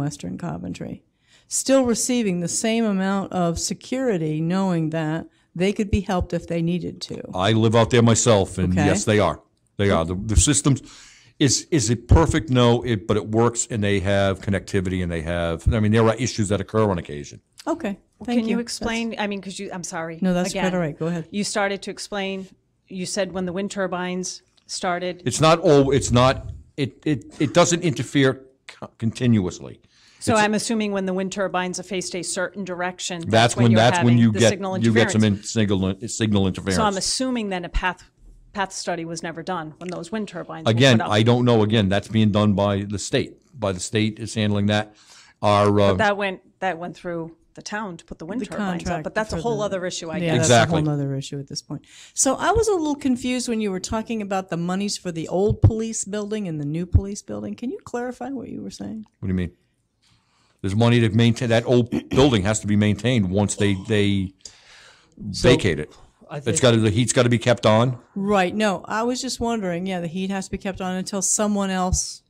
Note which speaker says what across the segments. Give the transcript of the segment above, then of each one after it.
Speaker 1: Western Coventry, still receiving the same amount of security, knowing that they could be helped if they needed to.
Speaker 2: I live out there myself, and
Speaker 1: Okay.
Speaker 2: yes, they are. They are. The, the systems, is, is it perfect? No, it, but it works, and they have connectivity, and they have, I mean, there are issues that occur on occasion.
Speaker 1: Okay, thank you.
Speaker 3: Can you
Speaker 1: That's-
Speaker 3: explain, I mean, because you, I'm sorry.
Speaker 1: No, that's quite
Speaker 3: Again,
Speaker 1: all right. Go ahead.
Speaker 3: You started to explain, you said when the wind turbines started.
Speaker 2: It's not all, it's not, it, it, it doesn't interfere co- continuously.
Speaker 3: So I'm assuming when the wind turbines face a certain direction,
Speaker 2: That's when,
Speaker 3: you're
Speaker 2: that's when
Speaker 3: having
Speaker 2: you
Speaker 3: the
Speaker 2: get,
Speaker 3: signal
Speaker 2: you get some
Speaker 3: interference.
Speaker 2: in- signal, signal
Speaker 3: So I'm
Speaker 2: interference.
Speaker 3: assuming then a path, path study was never done when those wind turbines were
Speaker 2: Again,
Speaker 3: put up.
Speaker 2: I don't know, again, that's being done by the state, by the state is handling that. Our, uh,
Speaker 3: That went, that went through the town to put the wind turbines up,
Speaker 1: contract
Speaker 3: but that's a
Speaker 1: for
Speaker 3: whole
Speaker 1: the-
Speaker 3: other issue, I
Speaker 1: Yeah,
Speaker 3: guess.
Speaker 1: that's a
Speaker 2: Exactly.
Speaker 1: whole other issue at this point. So I was a little confused when you were talking about the monies for the old police building and the new police building. Can you clarify what you were saying?
Speaker 2: What do you mean? There's money to maintain, that old building has to be maintained once they, they vacate it.
Speaker 4: I
Speaker 2: It's
Speaker 4: think-
Speaker 2: got, to the heat's got to be kept on.
Speaker 1: Right, no, I was just wondering, yeah, the heat has to be kept on until someone else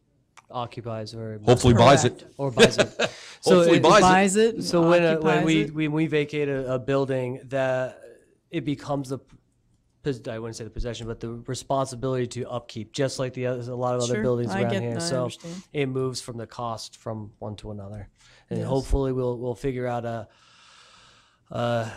Speaker 4: occupies or
Speaker 2: Hopefully buys it.
Speaker 4: or buys it. So
Speaker 2: Hopefully
Speaker 4: it-
Speaker 2: buys it.
Speaker 1: buys it,
Speaker 4: So when, uh, when
Speaker 1: occupies
Speaker 4: we
Speaker 1: it.
Speaker 4: when we vacate a, a building, that it becomes the pos- I wouldn't say the possession, but the responsibility to upkeep, just like the others, a lot of other
Speaker 1: Sure,
Speaker 4: buildings
Speaker 1: I
Speaker 4: around
Speaker 1: get
Speaker 4: here.
Speaker 1: that, I
Speaker 4: so
Speaker 1: understand.
Speaker 4: it moves from the cost from one to another, and hopefully we'll we'll figure out a. Uh,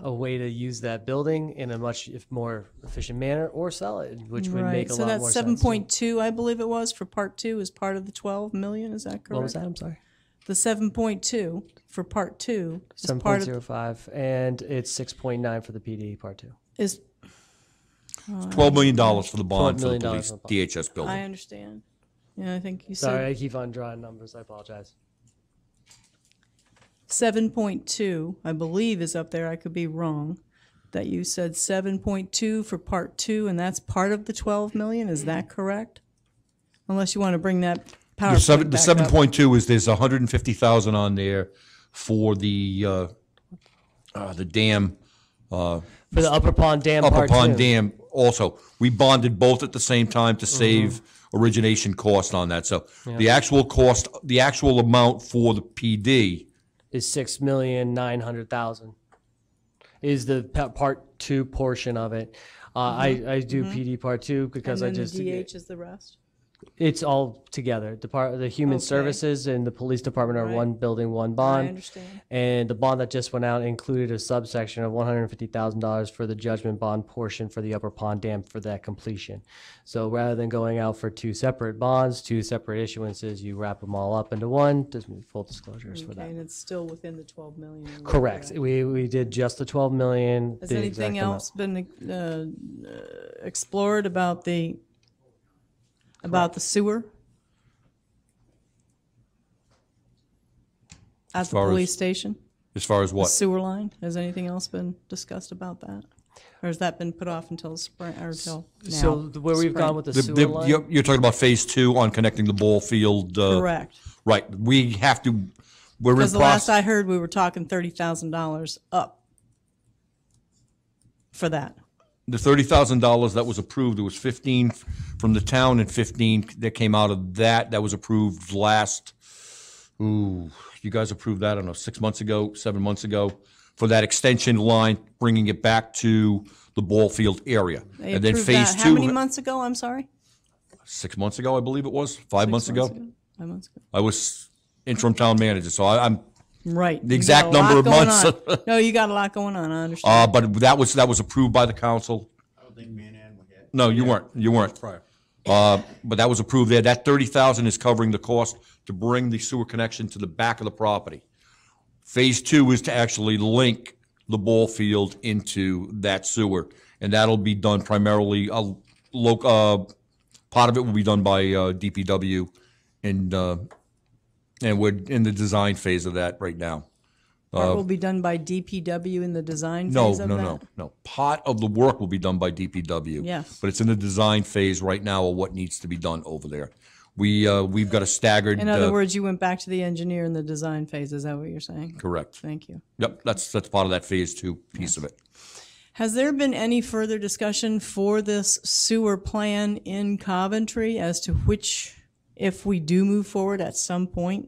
Speaker 4: a way to use that building in a much if more efficient manner, or sell it, which would make
Speaker 1: Right,
Speaker 4: a
Speaker 1: so
Speaker 4: lot
Speaker 1: that's
Speaker 4: more
Speaker 1: seven
Speaker 4: sense.
Speaker 1: point two, I believe it was, for part two is part of the twelve million, is that correct?
Speaker 4: What was that? I'm sorry.
Speaker 1: The seven point two for part two is
Speaker 4: Seven
Speaker 1: part
Speaker 4: point
Speaker 1: of,
Speaker 4: zero five, and it's six point nine for the PD part two.
Speaker 1: is,
Speaker 2: Twelve million dollars for the bond for the
Speaker 4: $12 million
Speaker 2: police
Speaker 4: for the bond.
Speaker 2: DHS
Speaker 1: I
Speaker 2: building.
Speaker 1: understand. Yeah, I think you
Speaker 4: Sorry,
Speaker 1: said
Speaker 4: I keep on drawing numbers. I apologize.
Speaker 1: seven point two, I believe is up there, I could be wrong. That you said seven point two for part two, and that's part of the twelve million, is that correct? Unless you want to bring that
Speaker 2: The seven,
Speaker 1: PowerPoint
Speaker 2: the
Speaker 1: back
Speaker 2: seven
Speaker 1: up.
Speaker 2: point two is there's a hundred and fifty thousand on there for the, uh, uh, the dam, uh,
Speaker 4: For the Upper Pond Dam
Speaker 2: Upper
Speaker 4: part
Speaker 2: Pond
Speaker 4: two. Mm-hmm.
Speaker 2: Dam also. We bonded both at the same time to save origination cost on that. So the actual cost, the actual amount for the PD
Speaker 4: is six million nine hundred thousand. Is the pa- part two portion of it? Uh, I I do PD part two
Speaker 1: Mm-hmm. And
Speaker 4: because I
Speaker 1: then the
Speaker 4: just
Speaker 1: DH is the rest?
Speaker 4: it's all together. The part the human
Speaker 1: Okay.
Speaker 4: services and the police department are
Speaker 1: Right.
Speaker 4: one building, one bond.
Speaker 1: understand.
Speaker 4: And the bond that just went out included a subsection of one hundred fifty thousand dollars for the judgment bond portion for the Upper Pond Dam for that completion. So rather than going out for two separate bonds, two separate issuances, you wrap them all up into one. Just full disclosures for
Speaker 1: Okay,
Speaker 4: that.
Speaker 1: and it's still within the twelve million. or
Speaker 4: Correct.
Speaker 1: whatever.
Speaker 4: We, we did just the 12 million.
Speaker 1: Has
Speaker 4: the
Speaker 1: anything
Speaker 4: exact amount.
Speaker 1: else been uh, explored about the, about the sewer? At the
Speaker 2: far as-
Speaker 1: police station,
Speaker 2: as far as what?
Speaker 1: sewer line, has anything else been discussed about that? Or has that been put off until spring, or till now?
Speaker 4: So the- where we've
Speaker 1: Spring.
Speaker 4: gone with the
Speaker 2: The- the-
Speaker 4: sewer line,
Speaker 2: You're, you're talking about phase two on connecting the ball field. uh,
Speaker 1: Correct,
Speaker 2: Right. We have to, we're in
Speaker 1: because the last I
Speaker 2: process.
Speaker 1: heard, we were talking thirty thousand dollars up for that.
Speaker 2: The thirty thousand dollars that was approved, there was fifteen from the town and fifteen that came out of that, that was approved last, ooh, you guys approved that, I don't know, six months ago, seven months ago, for that extension line, bringing it back to the ball field area.
Speaker 1: They
Speaker 2: And then
Speaker 1: approved that
Speaker 2: phase
Speaker 1: How many
Speaker 2: two,
Speaker 1: months ago, I'm sorry?
Speaker 2: six months ago, I believe it was, five months
Speaker 1: Six
Speaker 2: ago.
Speaker 1: Five months ago.
Speaker 2: I was interim town manager, so I, I'm
Speaker 1: Right. The
Speaker 2: exact number of months.
Speaker 1: no, you got a lot going on. I understand.
Speaker 2: Uh, but that was, that was approved by the council.
Speaker 5: I don't think me and Ann were here.
Speaker 2: No, you weren't, you weren't. Prior. Uh, but that was approved there. That thirty thousand is covering the cost to bring the sewer connection to the back of the property. Phase two is to actually link the ball field into that sewer. And that'll be done primarily, uh, loc, uh, part of it will be done by, uh, DPW and, uh, and we're in the design phase of that right now.
Speaker 1: Part will be done by DPW in the design
Speaker 2: Uh, No,
Speaker 1: phase of
Speaker 2: no,
Speaker 1: that.
Speaker 2: no, no. Part of the work will be done by DPW.
Speaker 1: Yes.
Speaker 2: But it's in the design phase right now of what needs to be done over there. We, uh, we've got a staggered.
Speaker 1: In other
Speaker 2: uh,
Speaker 1: words, you went back to the engineer in the design phase. Is that what you're saying?
Speaker 2: Correct.
Speaker 1: Thank you.
Speaker 2: Yep, that's, that's part of that phase two piece of it.
Speaker 1: Has there been any further discussion for this sewer plan in Coventry as to which if we do move forward at some point